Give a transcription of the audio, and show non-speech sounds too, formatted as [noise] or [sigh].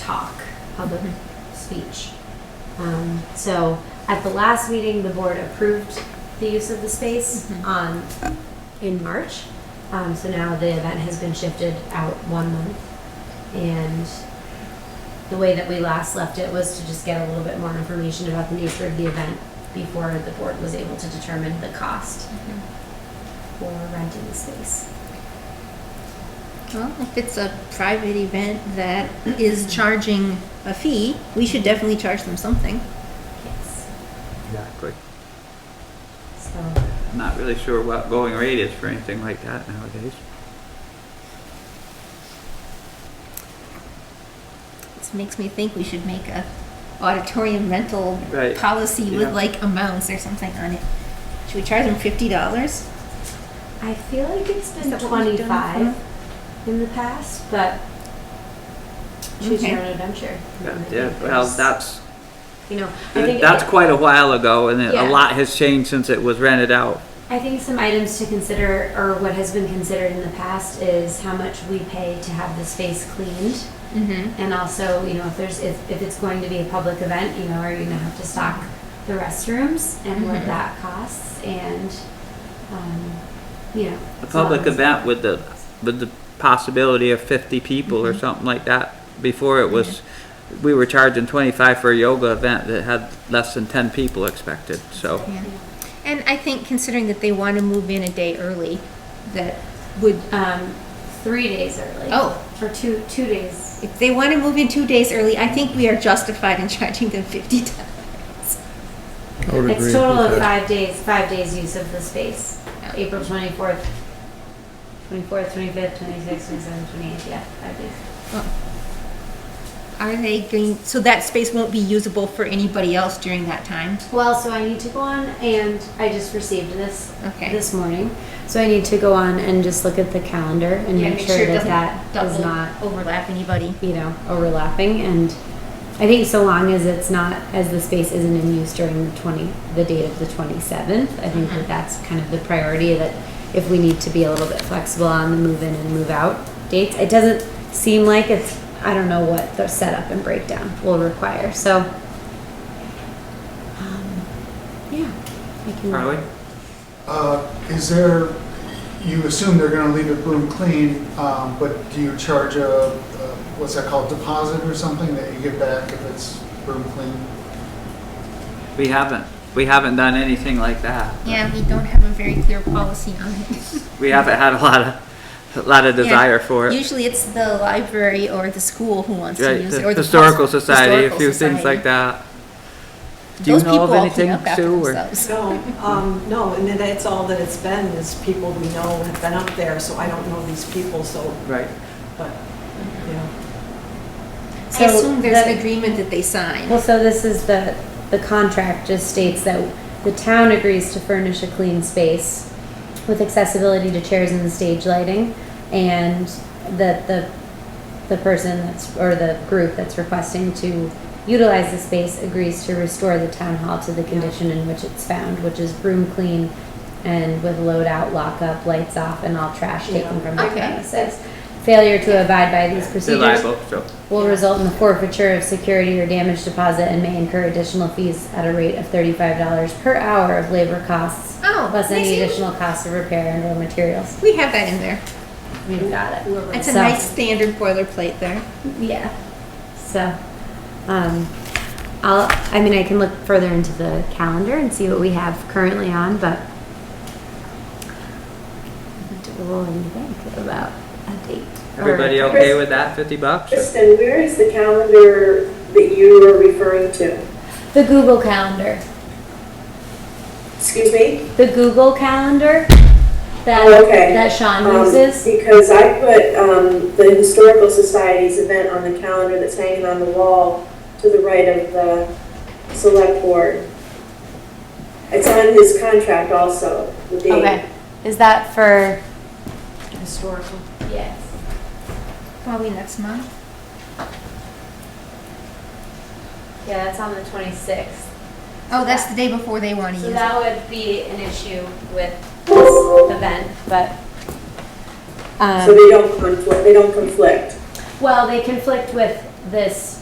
talk, public speech. Um, so at the last meeting, the board approved the use of the space on, in March. Um, so now the event has been shifted out one month. And the way that we last left it was to just get a little bit more information about the nature of the event before the board was able to determine the cost for renting the space. Well, if it's a private event that is charging a fee, we should definitely charge them something. Yes. Exactly. So I'm not really sure what going rate is for anything like that nowadays. This makes me think we should make a auditorium rental Right. policy Yeah. with like amounts or something on it. Should we charge them fifty dollars? I feel like it's been Is that what we've done 25 in the past, but choose your own adventure. Yeah, I yeah, think well, there's- that's, You know, I think, that's quite a while ago and it- Yeah. a lot has changed since it was rented out. I think some items to consider, or what has been considered in the past, is how much we pay to have the space cleaned. Mm-hmm. And also, you know, if there's, if, if it's going to be a public event, you know, are you gonna have to stock the restrooms and what Mhm. that costs and, um, you know. A as long public as- event with the, with the possibility of fifty people Mm-hmm. or something like that. Before it was, we were charging twenty-five for a yoga event that had less than ten people expected, so. Yeah. And I think considering that they want to move in a day early, that would Um, three days early. Oh. Or two, two days. if they want to move in two days early, I think we are justified in [laughs] charging them fifty dollars. I would agree It's total with of that. five days, five days use of the space. April twenty-fourth, twenty-fourth, twenty-fifth, twenty-sixth, twenty-seventh, twenty-eighth, yeah, five days. Are they going, so that space won't be usable for anybody else during that time? Well, so I need to go on and I just received this Okay. this morning. So I need to go on and just look at the calendar and Yeah, make, sure, it that doesn't that does double not, overlap anybody. you know, overlapping. And I think so long as it's not, as the space isn't in use during the 20, the date of the 27th, I think Mm-hmm. that that's kind of the priority that if we need to be a little bit flexible on the move in and move out dates, it doesn't seem like it's, I don't know what the setup and breakdown will require. So, um, yeah. I can, Charlie? Uh, Is there, you assume they're going to leave it room clean, um, but do you charge a, a- what's that called, deposit or something that you give back if it's room clean? We haven't, we haven't done anything like that. Yeah, we don't have a very clear policy on it. We haven't had a lot of, a [laughs] lot of desire for it. Usually it's the library or the school who wants to Right, use the it, or the historical pos- society, a historical few things like society. that. Do you Those know of people all anything, clean up after Sue, or- themselves. No, um, no, and that's all that it's been, is people we know have been up there, so I don't know these people, so, Right. but, you know. I assume there's the- an agreement that they sign. Well, so this is the, the contract just states that the town agrees to furnish a clean space with accessibility to chairs and stage lighting, and that the, the person that's, or the group that's requesting to utilize the space agrees to restore the town hall to the condition in which it's found, which is room clean and with load out, lock up, lights off, and all trash taken from the Okay. premises. Failure to abide by these They're procedures liable, so. will result in the forfeiture of security or damage deposit and may incur additional fees at a rate of thirty-five dollars per hour of labor costs. Oh, Plus any amazing. additional costs of repair and or materials. We have that in there. We've got it. It's a So- nice standard boilerplate there. Yeah. So, um, I'll, I mean, I can look further into the calendar and see what we have currently on, but we'll roll in the bank about a date. or- Everybody okay with that, fifty bucks? or- Kristen, where is the calendar that you were referring to? The Google Calendar. Excuse me? the Google Calendar that Oh, okay. that Sean Um, uses. Because I put um, the Historical Society's event on the calendar that's hanging on the wall to the right of the select board. It's on his contract also, the date. Is that for? Historical. Yes. Probably next month. Yeah, that's on the twenty sixth. Oh, that's the day before they want to So use it. that would be an issue with this event, but. So Um, they don't conflict, they don't conflict. well, they conflict with this